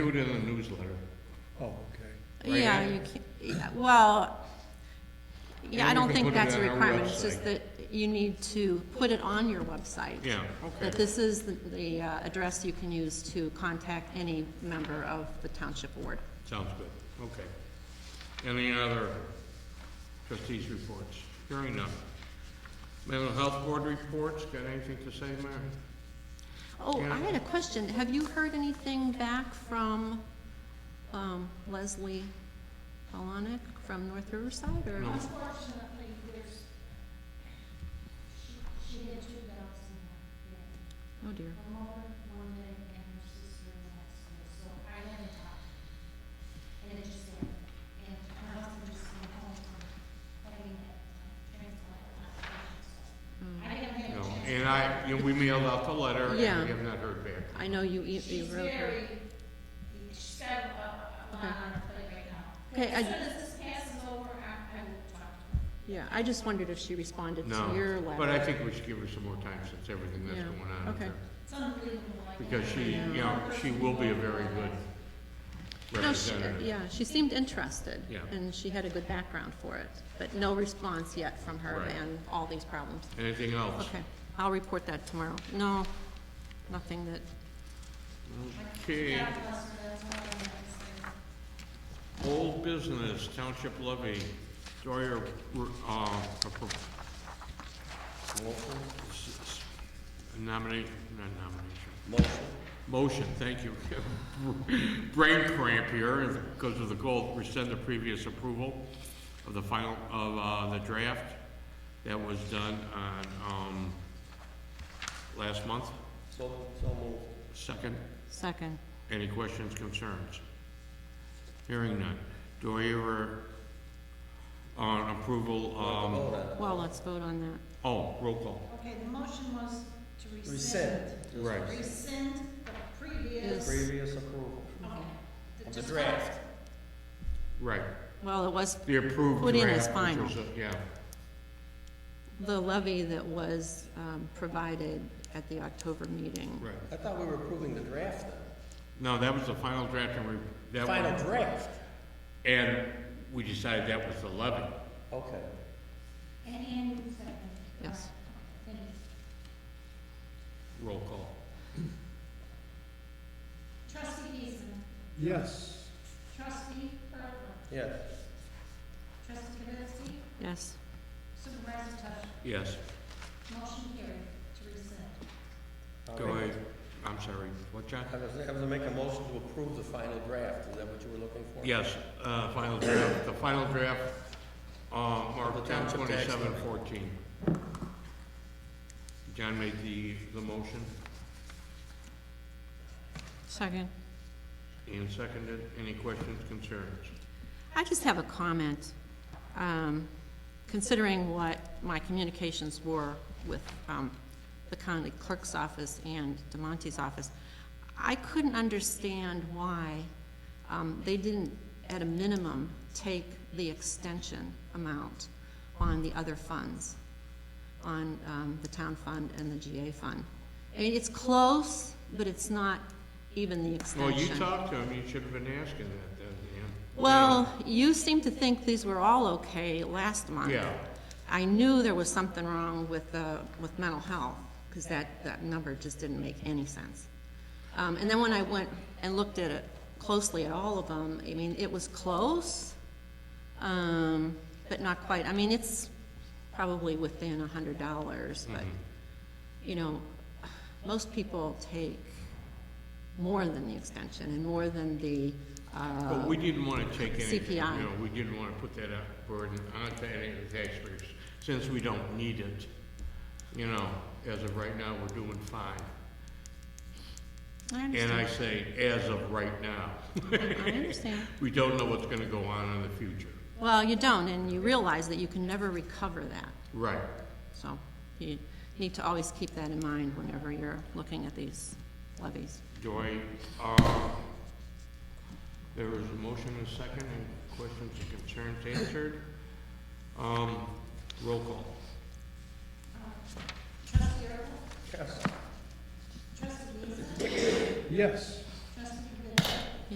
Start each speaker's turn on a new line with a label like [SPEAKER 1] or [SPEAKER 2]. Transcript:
[SPEAKER 1] Do it in the newsletter.
[SPEAKER 2] Oh, okay.
[SPEAKER 1] Right,
[SPEAKER 3] Yeah,
[SPEAKER 1] Ann?
[SPEAKER 3] you can't, yeah, well, yeah, I
[SPEAKER 1] And we
[SPEAKER 3] don't
[SPEAKER 1] can
[SPEAKER 3] think
[SPEAKER 1] put it
[SPEAKER 3] that's a
[SPEAKER 1] on our
[SPEAKER 3] requirement, it's
[SPEAKER 1] website.
[SPEAKER 3] just that you need to put it on your website.
[SPEAKER 1] Yeah, okay.
[SPEAKER 3] That this is the, the uh, address you can use to contact any member of the township board.
[SPEAKER 1] Sounds good, okay. Any other trustees' reports? Hearing none. Mental health board reports, got anything to say, Mary?
[SPEAKER 3] Oh,
[SPEAKER 1] Yeah.
[SPEAKER 3] I had a question, have you heard anything back from, um, Leslie Polonic from North Riverside, or?
[SPEAKER 1] No.
[SPEAKER 4] Unfortunately, there's, she, she had two dogs in that day.
[SPEAKER 3] Oh dear,
[SPEAKER 4] Her mother, one day, and her sister in the next day, so I went out. And it just happened, and her husband just came home from having that transplant. So I haven't had a
[SPEAKER 1] No,
[SPEAKER 4] chance.
[SPEAKER 1] and I, you know, we mailed out the letter, and we
[SPEAKER 3] Yeah.
[SPEAKER 1] have not heard back.
[SPEAKER 3] I know you, you- you
[SPEAKER 4] She's
[SPEAKER 3] wrote her.
[SPEAKER 4] very, she's got a, a lot on her plate right now.
[SPEAKER 3] Okay, I-
[SPEAKER 4] As soon as this passes over, I, I will talk to her.
[SPEAKER 3] Yeah, I just wondered if she responded to your
[SPEAKER 1] No,
[SPEAKER 3] letter.
[SPEAKER 1] but I think we should give her some more time since everything that's
[SPEAKER 3] Yeah,
[SPEAKER 1] going on. out
[SPEAKER 3] okay.
[SPEAKER 1] there.
[SPEAKER 4] It's unbelievable. I
[SPEAKER 1] Because
[SPEAKER 4] can't-
[SPEAKER 1] she, you know, she will be a very good
[SPEAKER 3] No, she,
[SPEAKER 1] representative.
[SPEAKER 3] yeah, she seemed interested.
[SPEAKER 1] Yeah.
[SPEAKER 3] And she had a good background for it, but no response yet from her
[SPEAKER 1] Right.
[SPEAKER 3] and all these problems.
[SPEAKER 1] Anything else?
[SPEAKER 3] Okay, I'll report that tomorrow. No, nothing that,
[SPEAKER 1] Okay. Old business, township levy, Doyer, uh, appro- s- s- nominate, not nomination. Motion. Motion, thank you. Brain cramp here because of the goal, rescind the previous approval of the final, of, uh, the draft that was done on, um, last month.
[SPEAKER 2] So, so moved.
[SPEAKER 1] Second?
[SPEAKER 3] second,
[SPEAKER 1] Any questions, concerns? Hearing none. Do I hear on approval, um,
[SPEAKER 3] well, let's vote on that.
[SPEAKER 1] oh, roll call.
[SPEAKER 4] Okay, the motion was to
[SPEAKER 2] Rescind.
[SPEAKER 4] rescind.
[SPEAKER 1] Right.
[SPEAKER 4] Rescind the previous.
[SPEAKER 3] Yes.
[SPEAKER 2] Previous approval.
[SPEAKER 4] Okay.
[SPEAKER 2] Of the draft.
[SPEAKER 1] Right,
[SPEAKER 3] Well, it was
[SPEAKER 1] the approved
[SPEAKER 3] Put in
[SPEAKER 1] draft,
[SPEAKER 3] as
[SPEAKER 1] which
[SPEAKER 3] final.
[SPEAKER 1] was, a- yeah,
[SPEAKER 3] the levy that was um, provided at the October meeting.
[SPEAKER 1] right.
[SPEAKER 2] I thought we were approving the draft then.
[SPEAKER 1] No, that was the final draft and we, that
[SPEAKER 2] Final
[SPEAKER 1] was,
[SPEAKER 2] draft.
[SPEAKER 1] and we decided that was the levy.
[SPEAKER 2] Okay.
[SPEAKER 4] And Annie was second.
[SPEAKER 3] Yes.
[SPEAKER 4] Thank you.
[SPEAKER 1] Roll call.
[SPEAKER 4] Trustee Giesman,
[SPEAKER 2] Yes.
[SPEAKER 4] trustee Bertler,
[SPEAKER 2] Yes.
[SPEAKER 4] trustee Kavitsky,
[SPEAKER 3] Yes,
[SPEAKER 4] supervisor Tusher.
[SPEAKER 1] Yes.
[SPEAKER 4] Motion carried to rescind.
[SPEAKER 1] Do I, I'm sorry, what, John?
[SPEAKER 2] I was, I was gonna make a motion to approve the final draft. Is that what you were looking for?
[SPEAKER 1] Yes, uh, final draft, the final draft, uh, Mark,
[SPEAKER 2] Of the
[SPEAKER 1] ten
[SPEAKER 2] township tax
[SPEAKER 1] twenty-seven
[SPEAKER 2] levy.
[SPEAKER 1] fourteen. John made the, the motion,
[SPEAKER 3] second.
[SPEAKER 1] Ian seconded, any questions, concerns?
[SPEAKER 3] I just have a comment, um, considering what my communications were with um, the county clerk's office and DeMonte's office. I couldn't understand why um, they didn't, at a minimum, take the extension amount on the other funds, on um, the town fund and the GA fund. I mean, it's close, but it's not even the extension.
[SPEAKER 1] Well, you talked to him, you should have been asking that, then, Ian.
[SPEAKER 3] Well, you seem to think these were all okay last month.
[SPEAKER 1] Yeah.
[SPEAKER 3] I knew there was something wrong with, uh, with mental health, because that, that number just didn't make any sense. Um, and then when I went and looked at it closely at all of them, I mean, it was close, um, but not quite. I mean, it's probably within a hundred dollars, but,
[SPEAKER 1] Mm-hmm.
[SPEAKER 3] you know, most people take more than the extension and more than the, uh,
[SPEAKER 1] But we didn't wanna take anything, you
[SPEAKER 3] CPI.
[SPEAKER 1] know, we didn't wanna put that uh, burden onto any of the taxpayers, since we don't need it. You know, as of right now, we're doing fine.
[SPEAKER 3] I
[SPEAKER 1] And I
[SPEAKER 3] understand.
[SPEAKER 1] say, as of right now.
[SPEAKER 3] I understand.
[SPEAKER 1] We don't know what's gonna go on in the future.
[SPEAKER 3] Well, you don't, and you realize that you can never recover that.
[SPEAKER 1] Right.
[SPEAKER 3] So you need to always keep that in mind whenever you're looking at these levies.
[SPEAKER 1] Do I, uh, there is a motion and a second, and questions and concerns answered. Um, roll call.
[SPEAKER 4] Trustee Ertler,
[SPEAKER 2] Yes.
[SPEAKER 4] trustee Giesman,
[SPEAKER 2] Yes.